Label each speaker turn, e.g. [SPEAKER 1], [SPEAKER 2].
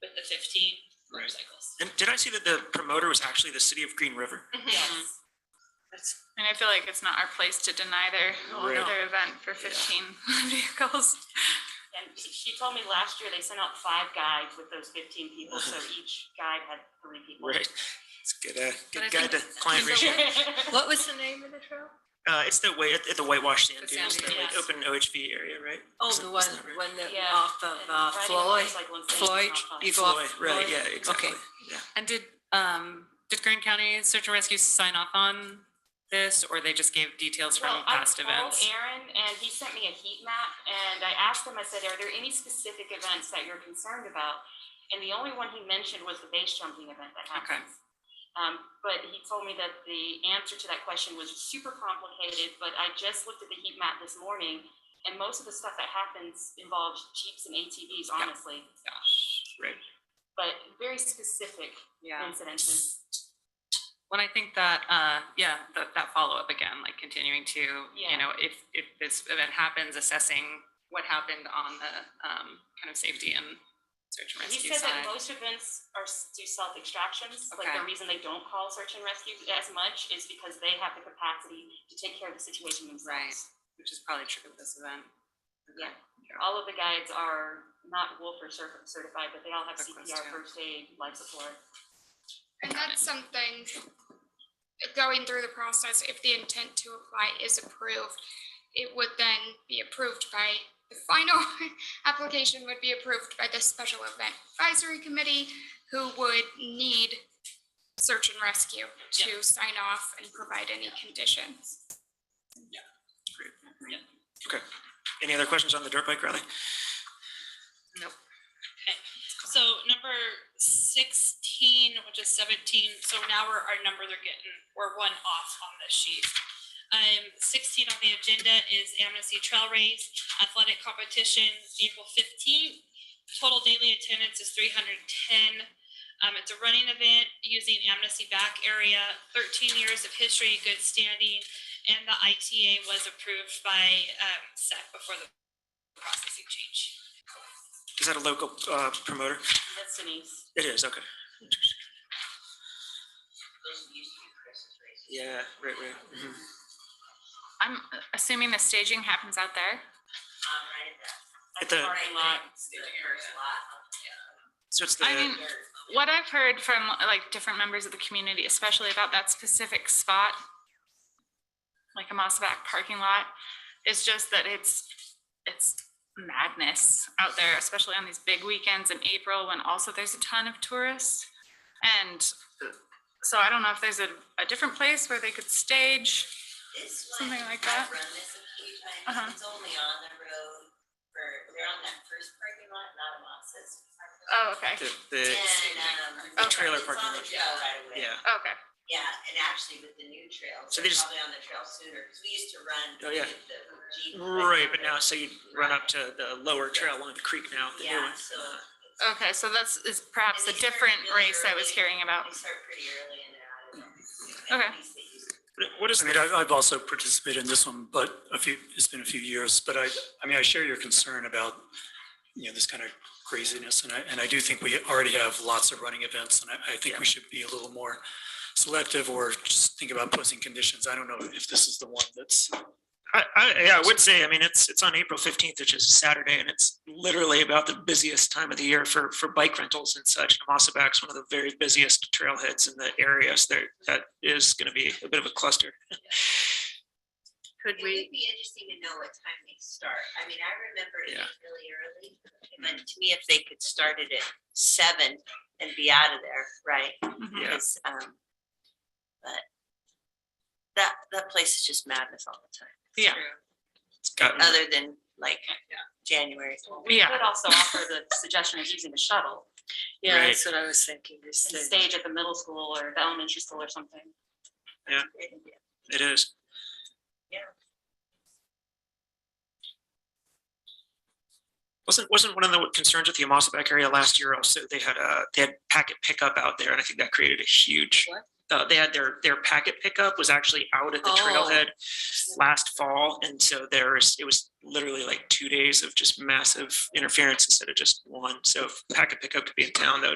[SPEAKER 1] the fifteen
[SPEAKER 2] Right.
[SPEAKER 1] motorcycles.
[SPEAKER 2] And did I see that the promoter was actually the city of Green River?
[SPEAKER 3] Mm-hmm.
[SPEAKER 1] Yes.
[SPEAKER 4] That's- And I feel like it's not our place to deny their,
[SPEAKER 5] Oh,
[SPEAKER 2] Right.
[SPEAKER 4] their event for fifteen vehicles.
[SPEAKER 3] And she- she told me last year they sent out five guides with those fifteen people, so each guide had three people.
[SPEAKER 2] Right. It's a good, uh,
[SPEAKER 5] But I
[SPEAKER 2] good guide to
[SPEAKER 5] think-
[SPEAKER 2] client ratio.
[SPEAKER 5] What was the name of the trail?
[SPEAKER 2] Uh, it's the way at, at the whitewash sand
[SPEAKER 5] The
[SPEAKER 2] dunes,
[SPEAKER 5] sand
[SPEAKER 2] that like
[SPEAKER 3] dunes.
[SPEAKER 2] open OHV area, right?
[SPEAKER 5] Oh,
[SPEAKER 2] Isn't-
[SPEAKER 5] the one,
[SPEAKER 2] isn't that right?
[SPEAKER 5] one that
[SPEAKER 3] Yeah.
[SPEAKER 5] off of
[SPEAKER 3] And
[SPEAKER 5] uh,
[SPEAKER 3] riding a
[SPEAKER 5] Floyd,
[SPEAKER 3] motorcycle in Spain is
[SPEAKER 5] Floyd,
[SPEAKER 3] not fun.
[SPEAKER 5] you go off.
[SPEAKER 2] Floyd, Right,
[SPEAKER 5] Floyd?
[SPEAKER 2] yeah, exactly.
[SPEAKER 5] Okay.
[SPEAKER 2] Yeah.
[SPEAKER 6] And did, um, did Grand County Search and Rescue sign off on this, or they just gave details from
[SPEAKER 3] Well, I
[SPEAKER 6] past
[SPEAKER 3] called
[SPEAKER 6] events?
[SPEAKER 3] Aaron and he sent me a heat map and I asked him, I said, are there any specific events that you're concerned about? And the only one he mentioned was the base jumping event that
[SPEAKER 6] Okay.
[SPEAKER 3] happens. Um, but he told me that the answer to that question was super complicated, but I just looked at the heat map this morning and most of the stuff that happens involves Jeeps and ATVs, honestly.
[SPEAKER 2] Right.
[SPEAKER 3] But very specific
[SPEAKER 6] Yeah.
[SPEAKER 3] incidences.
[SPEAKER 6] Well, I think that, uh, yeah, that, that follow-up again, like continuing to, you
[SPEAKER 3] Yeah.
[SPEAKER 6] know, if, if this event happens, assessing what happened on the, um, kind of safety and search and
[SPEAKER 3] He
[SPEAKER 6] rescue
[SPEAKER 3] said that
[SPEAKER 6] side.
[SPEAKER 3] most events are, s- do self-extractions, like
[SPEAKER 6] Okay.
[SPEAKER 3] the reason they don't call search and rescue as much is because they have the capacity to take care of the situation
[SPEAKER 6] Right,
[SPEAKER 3] themselves.
[SPEAKER 6] which is probably true of this event.
[SPEAKER 3] Yeah.
[SPEAKER 6] Yeah.
[SPEAKER 3] All of the guides are not Wolf or Cer- certified, but they all have
[SPEAKER 6] Good
[SPEAKER 3] CPR,
[SPEAKER 6] question.
[SPEAKER 3] first aid, life support.
[SPEAKER 7] And that's something going through the process, if the intent to apply is approved, it would then be approved by the final application would be approved by the special event advisory committee who would need search and rescue to sign off and provide any conditions.
[SPEAKER 2] Any other questions on the dirt bike rally?
[SPEAKER 8] So number sixteen, which is seventeen, so now we're, our numbers are getting, we're one off on this sheet. Um, sixteen on the agenda is Amnesty Trail Race Athletic Competition, April fifteenth. Total daily attendance is three hundred and ten. Um, it's a running event using Amnesty Back Area, thirteen years of history, good standing. And the ITA was approved by, um, SEC before the processing change.
[SPEAKER 2] Is that a local uh, promoter?
[SPEAKER 3] That's Denise.
[SPEAKER 2] It is, okay. Yeah, right, right. Mhm.
[SPEAKER 4] I'm assuming the staging happens out there.
[SPEAKER 2] At the-
[SPEAKER 3] Parking lot.
[SPEAKER 2] So it's the,
[SPEAKER 4] I mean, what I've heard from like different members of the community, especially about that specific spot, like a Mossaback parking lot, is just that it's, it's madness out there, especially on these big weekends in April when also there's a ton of tourists. And so I don't know if there's a, a different place where they could stage.
[SPEAKER 9] This one,
[SPEAKER 4] Something like that.
[SPEAKER 9] I've run this a few
[SPEAKER 4] Uh-huh.
[SPEAKER 9] times, it's only on the road for, they're on that first parking lot, not a Moss's. parking
[SPEAKER 4] Oh,
[SPEAKER 9] lot.
[SPEAKER 4] okay,
[SPEAKER 2] the, the,
[SPEAKER 9] And, um.
[SPEAKER 2] The trailer
[SPEAKER 9] it's on
[SPEAKER 2] parking
[SPEAKER 9] the
[SPEAKER 2] lot.
[SPEAKER 9] trail right away.
[SPEAKER 2] yeah.
[SPEAKER 4] okay.
[SPEAKER 9] Yeah, and actually with the new trail,
[SPEAKER 2] So
[SPEAKER 9] so
[SPEAKER 2] they just-
[SPEAKER 9] probably on the trail sooner, because we used to run.
[SPEAKER 2] Oh, yeah.
[SPEAKER 9] with the Jeep
[SPEAKER 2] Right, but
[SPEAKER 9] there.
[SPEAKER 2] now, so you run up to the lower trail along the creek now, the new
[SPEAKER 9] Yeah,
[SPEAKER 2] one.
[SPEAKER 9] so
[SPEAKER 4] Okay, so that's is perhaps a
[SPEAKER 9] And these are
[SPEAKER 4] different
[SPEAKER 9] really
[SPEAKER 4] race I was
[SPEAKER 9] early.
[SPEAKER 4] hearing about.
[SPEAKER 9] they start pretty early and they're
[SPEAKER 4] Okay.
[SPEAKER 9] out of there. At least they used to.
[SPEAKER 2] But What is
[SPEAKER 10] I mean, I- I've also participated in this one, but a few, it's been a few years, but I, I mean, I share your concern about, you know, this kind of craziness, and I, and I do think we already have lots of running events, and I, I think we should be a little more selective or just think about posing conditions. I don't know if this is the one that's,
[SPEAKER 2] I, I, yeah, I would say, I mean, it's, it's on April fifteenth, which is a Saturday, and it's literally about the busiest time of the year for, for bike rentals and such. And Mossaback's one of the very busiest trailheads in the area, so there, that is gonna be a bit of a cluster.
[SPEAKER 4] Could
[SPEAKER 9] It would be interesting to know what time they start. I mean, I remember it
[SPEAKER 2] Yeah.
[SPEAKER 9] was really early. But to me, if they could start it at seven and be out of there, right?
[SPEAKER 2] Yeah.
[SPEAKER 9] Because, um, but that, that place is just madness all the time,
[SPEAKER 4] Yeah,
[SPEAKER 2] It's gotten,
[SPEAKER 9] other than like January.
[SPEAKER 3] We
[SPEAKER 4] Yeah.
[SPEAKER 3] could also offer the suggestion of using the shuttle
[SPEAKER 5] Yeah,
[SPEAKER 2] Right.
[SPEAKER 5] that's what I was thinking. you
[SPEAKER 3] and
[SPEAKER 5] said.
[SPEAKER 3] stage at the middle school or the elementary school or something.
[SPEAKER 2] it is.
[SPEAKER 9] Yeah.
[SPEAKER 2] Wasn't, wasn't one of the concerns with the Mossaback area last year also, they had a, they had packet pickup out there, and I think that created a huge.
[SPEAKER 5] What?
[SPEAKER 2] Uh, they had their, their packet pickup was actually out at the
[SPEAKER 5] Oh.
[SPEAKER 2] trailhead last fall, and so there was, it was literally like two days of just massive interference instead of just one. So if packet pickup could be in town, that would